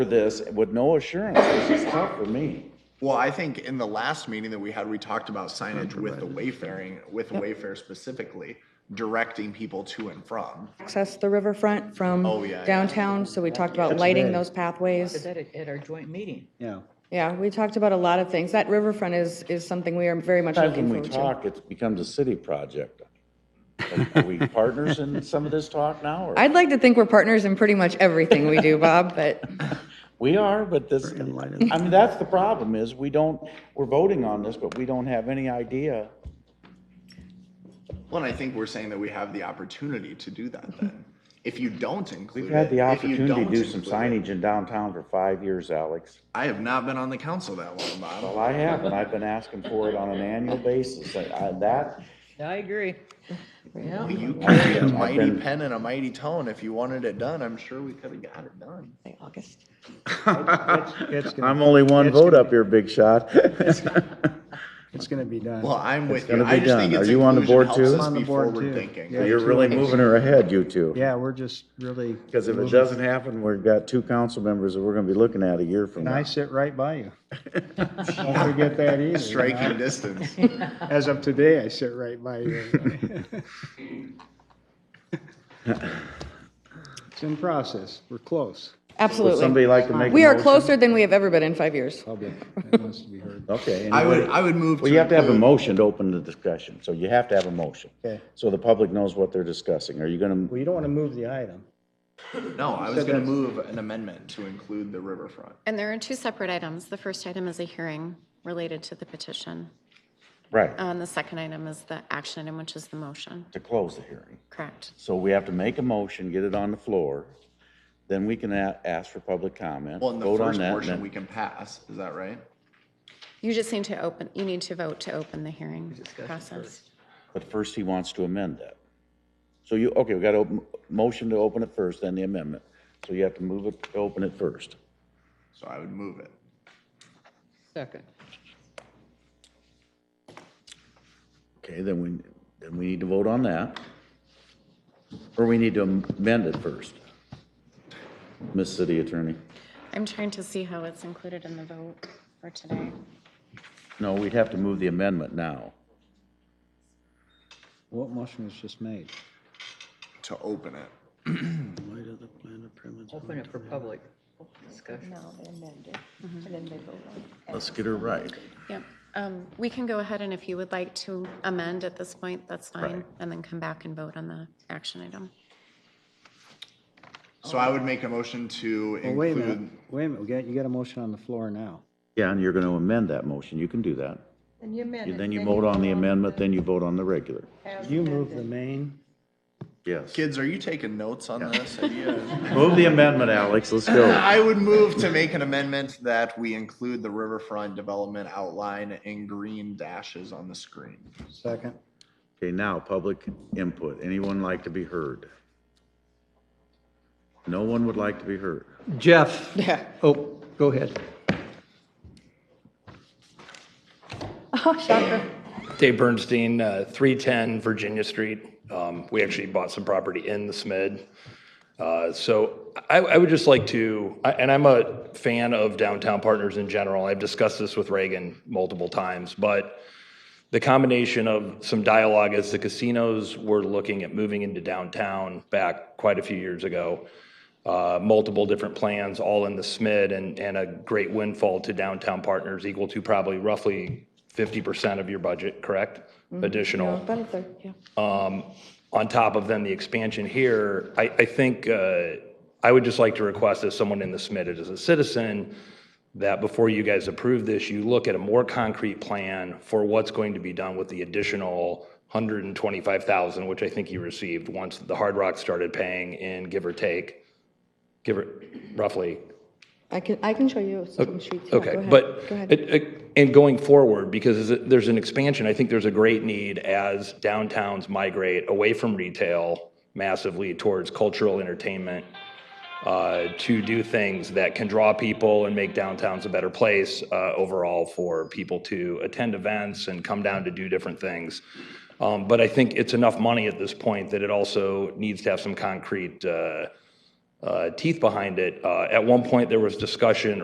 for this with no assurances is tough for me. Well, I think in the last meeting that we had, we talked about signage with the wayfaring, with Wayfair specifically, directing people to and from. access the riverfront from Oh, yeah, yeah. downtown, so we talked about lighting those pathways. Said it at our joint meeting. Yeah. Yeah, we talked about a lot of things. That riverfront is, is something we are very much Time looking when we forward to. talk, it becomes a city project. Are we partners in some of this talk now? or- I'd like to think we're partners in pretty much everything we do, Bob, but We are, but this, I mean, that's the problem is we don't, we're voting on this, but we don't have any idea. Well, and I think we're saying that we have the opportunity to do that then. If you don't include We've it. had the if you opportunity to don't do some include it- signage in downtown for five years, Alex. I have not been on the council that long, Bob. Well, I have, and I've been asking for it on an annual basis. I- I- That, I agree. Yeah. You carry a I've mighty been- pen and a mighty tone. If you wanted it done, I'm sure we could have got it done. August. It's gonna, I'm only one vote up here, big shot. it's gonna be done. Well, I'm with you. gonna I be just think done. it's Are you on the board inclusion helps too? us I'm on the be board too. forward thinking. Yeah. You're really moving her ahead, you two. Yeah, we're just really. Because if it doesn't happen, we've got two council members that we're gonna be looking at a year from And now. I sit right by you. Don't forget that either. you know. Striking distance. As of today, I sit right by you. everybody. It's in process. We're close. Would Absolutely. somebody like to make a We are motion? closer than we have ever been in five years. Public, that wants to be heard. Okay. I would, anyway. I would move. Well, you have to have a include- motion to open the discussion, so you have to have a motion. Okay. So the public knows what they're discussing. Are you gonna, Well, you don't want to move the item. No, I was gonna move an amendment to include the riverfront. And there are two separate items. The first item is a hearing related to the petition, right, and the second item is the action item, which is the motion. to close the hearing. Correct. So we have to make a motion, get it on the floor, then we can a- ask for public comment, Well, in the vote on first that, portion, and we then can pass, is that right? You just need to open, you need to vote to open the hearing process. But first, he wants to amend that. So you, okay, we got a motion to open it first, then the amendment. So you have to move it, open it first. So I would move it. Second. Okay, then we, then we need to vote on that. Or we need to amend it first. Miss City Attorney. I'm trying to see how it's included in the vote for today. No, we'd have to move the amendment now. What motion was just made? to open it. Open it for public discussion. Let's get her right. Yep. Um, We can go ahead, and if you would like to amend at this point, that's fine, Right. and then come back and vote on the action item. So I would make a motion to Well, wait a minute, include, wait a minute. We got, you got a motion on the floor now. Yeah, and you're going to amend that motion. You can do that. And you amend it. Then you vote on the amendment, then you vote on the regular. as You move the amended. main. Yes. kids, are you taking notes on this? Are you- Move the amendment, Alex. Let's go. I would move to make an amendment that we include the riverfront development outline in green dashes on the screen. Second. Okay, now, public input. Anyone like to be heard? No one would like to be heard. Jeff, Yeah. oh, go ahead. Dave Bernstein, uh, 310 Virginia Street. Um, We actually bought some property in the SMID. Uh, So I I would just like to, I- and I'm a fan of downtown partners in general. I've discussed this with Reagan multiple times, but the combination of some dialogue as the casinos were looking at moving into downtown back quite a few years ago, uh, multiple different plans, all in the SMID, and, and a great windfall to downtown partners equal to probably roughly 50% of your budget, correct? Additional About a third, yeah. on top of then the expansion here, I, I think, uh, I would just like to request as someone in the SMIT, as a citizen, that before you guys approve this, you look at a more concrete plan for what's going to be done with the additional 125,000, which I think you received once the Hard Rock started paying in, give or take, give or, roughly, I can, I can show you some sheets. Yeah, go Okay, ahead. but, Go ahead. it- it- and going forward, because is it- there's an expansion, I think there's a great need as downtowns migrate away from retail massively towards cultural entertainment, uh, to do things that can draw people and make downtowns a better place uh, overall for people to attend events and come down to do different things. Um, But I think it's enough money at this point that it also needs to have some concrete uh, uh, teeth behind it. Uh, At one point, there was discussion